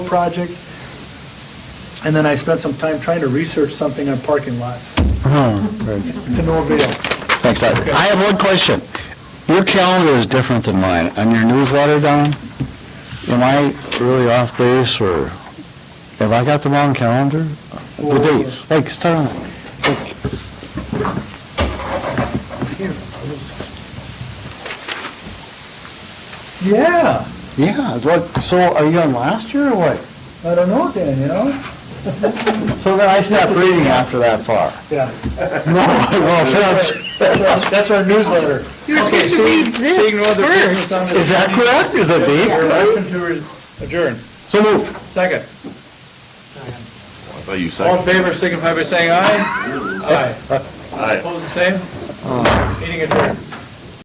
project. And then I spent some time trying to research something on parking lots, Hmm. to no avail. Thanks, Ed. I have one question. Your calendar is different than mine. On your newsletter, Don, am I really off base, or have I got the wrong calendar? The dates, like, start on it. Yeah, Yeah, what, so are you on last year, or what? I don't know, Dan, you know? So then I stopped reading after that far. Yeah. No, no offense. That's our- That's our newsletter. You're supposed to read this first. Is that correct? Is that date? Adjourn. So moved. Second. I thought you All in said, favor, signify by saying aye. Aye. Aye. Opposed, the same? Meeting adjourned.